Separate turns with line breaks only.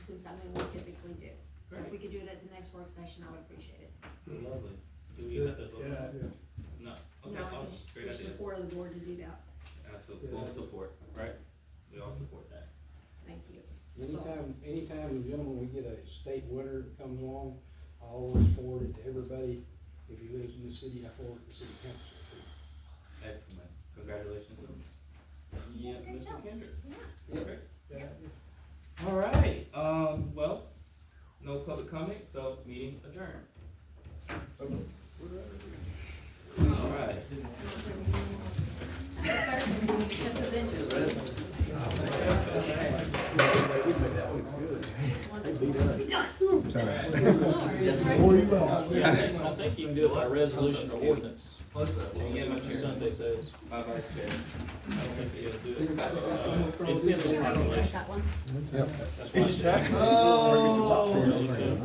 something we typically do. So if
Great.
we could do it at the next work session, I would appreciate it.
Lovely. Do we
Yeah,
have to vote?
yeah, I do.
No,
You know, I
okay, awesome,
think
great
there's
idea,
Support of the board to do that,
absolutely,
Yeah,
full
that's-
support, right? We all support that.
thank you.
Anytime, anytime, gentlemen, we get a state winner that comes along, I always forward it to everybody. If he lives in the city, I forward it to city council.
Excellent, congratulations. Yeah,
Great
Mr.
job.
Kendrick.
Yeah.
Perfect.
Yeah,
All right, um, well, no public comment, so meeting adjourned. All right.
I think you can do it by resolution or ordinance,
Yeah, my
which
chair,
Sunday says.
my vice chair. I don't think they'll do it.
It depends on how much.
Yep.
That's why I said.
Oh,